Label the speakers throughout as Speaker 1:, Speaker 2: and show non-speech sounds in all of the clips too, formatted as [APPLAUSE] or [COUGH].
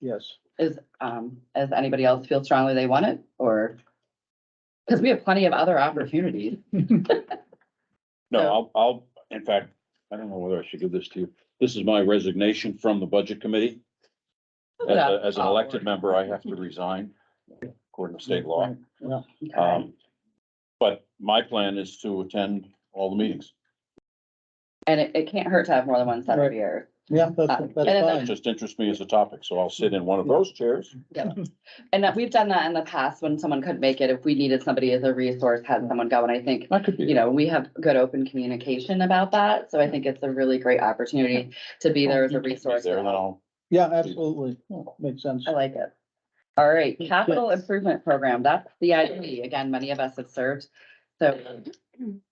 Speaker 1: Yes.
Speaker 2: Is, um, as anybody else feel strongly they want it or? Cause we have plenty of other opportunities.
Speaker 3: No,
Speaker 2: So-
Speaker 3: I'll, I'll, in fact, I don't know whether I should give this to you. This is my resignation from the budget committee. As, a- as an
Speaker 2: Oh,
Speaker 3: elected member, I have to resign according to state law.
Speaker 1: Yeah.
Speaker 2: Okay.
Speaker 3: Um, but my plan is to attend all the meetings,
Speaker 2: And it, it can't hurt to have more than one set of
Speaker 1: Right.
Speaker 2: ears.
Speaker 1: Yeah,
Speaker 2: Uh,
Speaker 1: that's,
Speaker 2: and
Speaker 3: It
Speaker 1: that's fine.
Speaker 3: just interests me as a topic, so I'll sit in one of those chairs.
Speaker 2: And that we've done that in the past when someone couldn't make it, if we needed somebody as a resource, had someone go, and I think.
Speaker 3: That could be.
Speaker 2: You know, we have good open communication about that, so I think it's a really great opportunity to be there as a
Speaker 3: You can't be
Speaker 2: resource.
Speaker 3: There, then
Speaker 2: I
Speaker 3: I'll,
Speaker 1: Yeah, absolutely. Makes sense.
Speaker 2: like it. All right, capital improvement program, that's the CIP, again, many of us have served, so.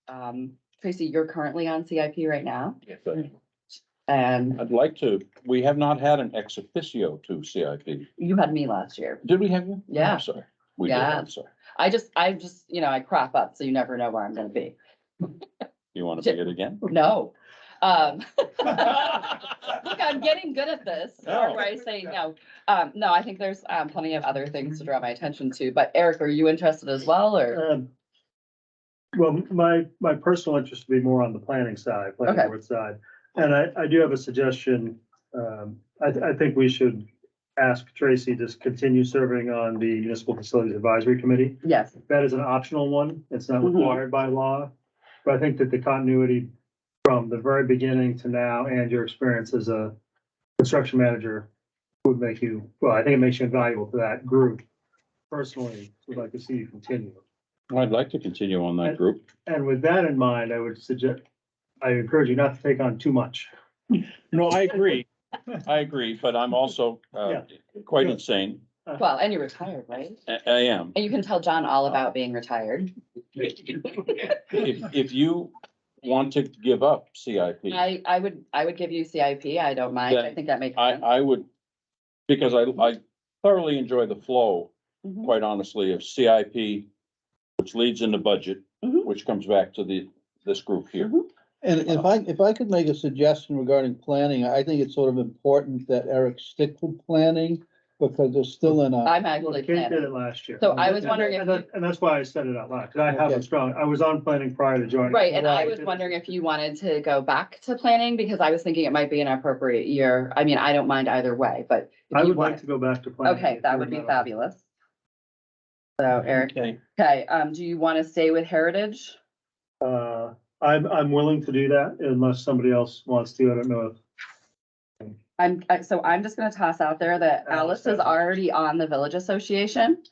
Speaker 2: Um, Tracy, you're currently on CIP right now, and
Speaker 3: I'd like to, we have not had an ex officio to CIP.
Speaker 2: you had me last year.
Speaker 3: Did we have you?
Speaker 2: Yeah.
Speaker 3: I'm sorry. We did,
Speaker 2: Yeah.
Speaker 3: I'm sorry.
Speaker 2: I just, I just, you know, I crop up, so you never know where I'm gonna be.
Speaker 3: You want to be
Speaker 2: [LAUGHS]
Speaker 3: it again? [LAUGHS]
Speaker 2: No. Um, [LAUGHS] Look, I'm getting good at this, or
Speaker 3: Oh.
Speaker 2: do I say no? Um, no, I think there's, um, plenty of other things to draw my attention to, but Eric, are you interested as well, or?
Speaker 4: Um, Well, my, my personal interest would be more on the planning side,
Speaker 2: Okay.
Speaker 4: planning board side. And I, I do have a suggestion. Um, I, I think we should ask Tracy to continue serving on the Municipal Facilities Advisory Committee.
Speaker 2: Yes,
Speaker 4: That is an optional one. It's not
Speaker 2: Mhm.
Speaker 4: required by law. But I think that the continuity from the very beginning to now and your experience as a construction manager would make you, well, I think it makes you invaluable to that group. Personally, would like to see you continue.
Speaker 3: I'd like to continue on that group.
Speaker 4: And with that in mind, I would suggest, I encourage you not to take on too much.
Speaker 3: No, I [LAUGHS] agree. I agree, but I'm also uh, quite
Speaker 4: Yeah.
Speaker 3: insane.
Speaker 2: well, and you're retired, right?
Speaker 3: I I am.
Speaker 2: And you can tell John all about being retired. [LAUGHS]
Speaker 3: If, if you want to give up CIP, I,
Speaker 2: I, I would, I would give you CIP, I don't mind, I
Speaker 3: Then
Speaker 2: think that makes sense.
Speaker 3: I would, because I, I thoroughly enjoy the flow,
Speaker 2: Mhm.
Speaker 3: quite honestly, of CIP, which leads into budget,
Speaker 2: Mhm.
Speaker 3: which comes back to the, this group here.
Speaker 1: And if I, if I could make a suggestion regarding planning, I think it's sort of important that Eric stick with planning because they're still in a,
Speaker 2: I'm actually
Speaker 4: Kate did
Speaker 2: planning,
Speaker 4: it last year.
Speaker 2: So I was wondering if
Speaker 4: And that- and that's why I said it out loud, because I have
Speaker 1: Okay.
Speaker 4: a strong, I was on planning prior to joining.
Speaker 2: right, and I was wondering if you wanted to go back to planning, because I was thinking it might be an appropriate year, I mean, I don't mind either way, but. if
Speaker 4: I
Speaker 2: you
Speaker 4: would
Speaker 2: want-
Speaker 4: like to go back to planning.
Speaker 2: Okay,
Speaker 4: if
Speaker 2: that
Speaker 4: you're
Speaker 2: would be
Speaker 4: not-
Speaker 2: fabulous. So
Speaker 4: Mhm.
Speaker 2: Eric,
Speaker 3: Okay.
Speaker 2: okay, um, do you want to stay with Heritage?
Speaker 4: Uh, I'm, I'm willing to do that unless somebody else wants to. I don't know if
Speaker 2: I'm, I- so I'm just gonna toss out there that
Speaker 4: Alice
Speaker 2: Alice is
Speaker 4: has it.
Speaker 2: already on the Village Association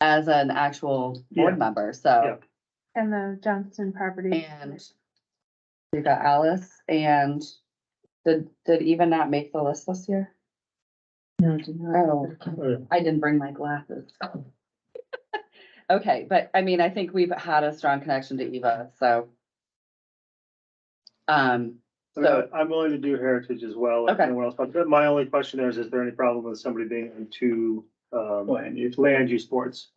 Speaker 2: as an actual
Speaker 4: Yeah.
Speaker 2: board member, so.
Speaker 4: Yeah.
Speaker 5: And the Johnston property.
Speaker 2: And we got Alice and did, did Eva not make the list this year?
Speaker 5: No, do not.
Speaker 2: Oh, I didn't bring my glasses. [LAUGHS] Okay, but I mean, I think we've had a strong connection to Eva, so. Um,
Speaker 4: I mean,
Speaker 2: So-
Speaker 4: I- I'm willing to do heritage as well. if
Speaker 2: Okay.
Speaker 4: no one else wants- but My only question there is, is there any problem with somebody being on two, um, land use, boards?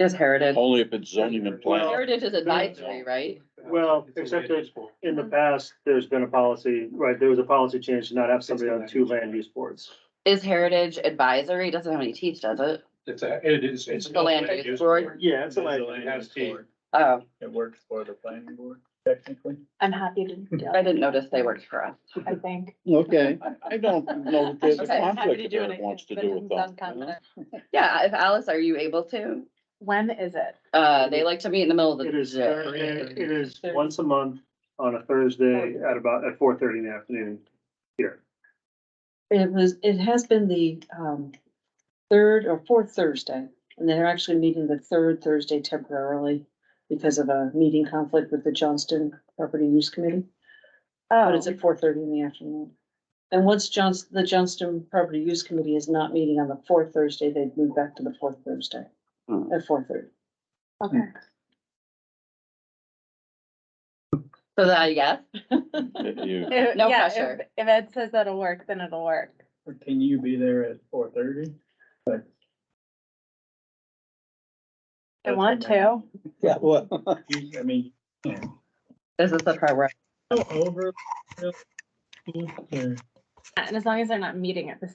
Speaker 2: is Heritage,
Speaker 3: Only if it's zoning and planning.
Speaker 2: Heritage is advisory, right?
Speaker 4: Well, except that in the past, there's been a policy, right, there was a policy change to not have somebody on two land use boards.
Speaker 2: Is Heritage advisory, doesn't have any teeth, does it?
Speaker 6: It's a, it is, it's.
Speaker 2: The land use board?
Speaker 4: Yeah, it's a land-
Speaker 6: It
Speaker 2: Oh,
Speaker 6: works for the planning board technically.
Speaker 5: I'm happy to, do
Speaker 2: I
Speaker 5: that,
Speaker 2: didn't notice they worked for us.
Speaker 5: I think.
Speaker 1: okay.
Speaker 3: I- I don't know that there's a
Speaker 2: Okay,
Speaker 5: happy
Speaker 3: conflict
Speaker 5: to
Speaker 3: that
Speaker 5: do
Speaker 3: Eric
Speaker 5: it,
Speaker 3: wants to
Speaker 5: but
Speaker 3: do
Speaker 5: I'm
Speaker 3: with that. you know?
Speaker 5: confident.
Speaker 2: Yeah, if Alice, are you able to?
Speaker 5: When is it?
Speaker 2: Uh, they like to meet in the middle of the.
Speaker 4: It is,
Speaker 2: day.
Speaker 4: it is once a month on a Thursday at about, at four thirty in the afternoon here.
Speaker 7: It was, it has been the um third or fourth Thursday, and they're actually meeting the third Thursday temporarily because of a meeting conflict with the Johnston Property Use Committee, but
Speaker 5: Oh,
Speaker 7: it's at four thirty in the afternoon. And once Johns, the Johnston Property Use Committee is not meeting on the fourth Thursday, they'd move back to the fourth Thursday
Speaker 2: Hmm.
Speaker 7: at four thirty.
Speaker 3: Hmm.
Speaker 5: okay.
Speaker 2: So that, I guess,
Speaker 3: That you-
Speaker 5: If-
Speaker 2: No
Speaker 5: [LAUGHS] yeah,
Speaker 2: pressure.
Speaker 5: if- If Ed says that'll work, then it'll work.
Speaker 6: Can you be there at four thirty?
Speaker 5: I want to.
Speaker 1: Yeah, well,
Speaker 6: I mean.
Speaker 2: this is the part where
Speaker 6: Over.
Speaker 5: And as long as they're not meeting at the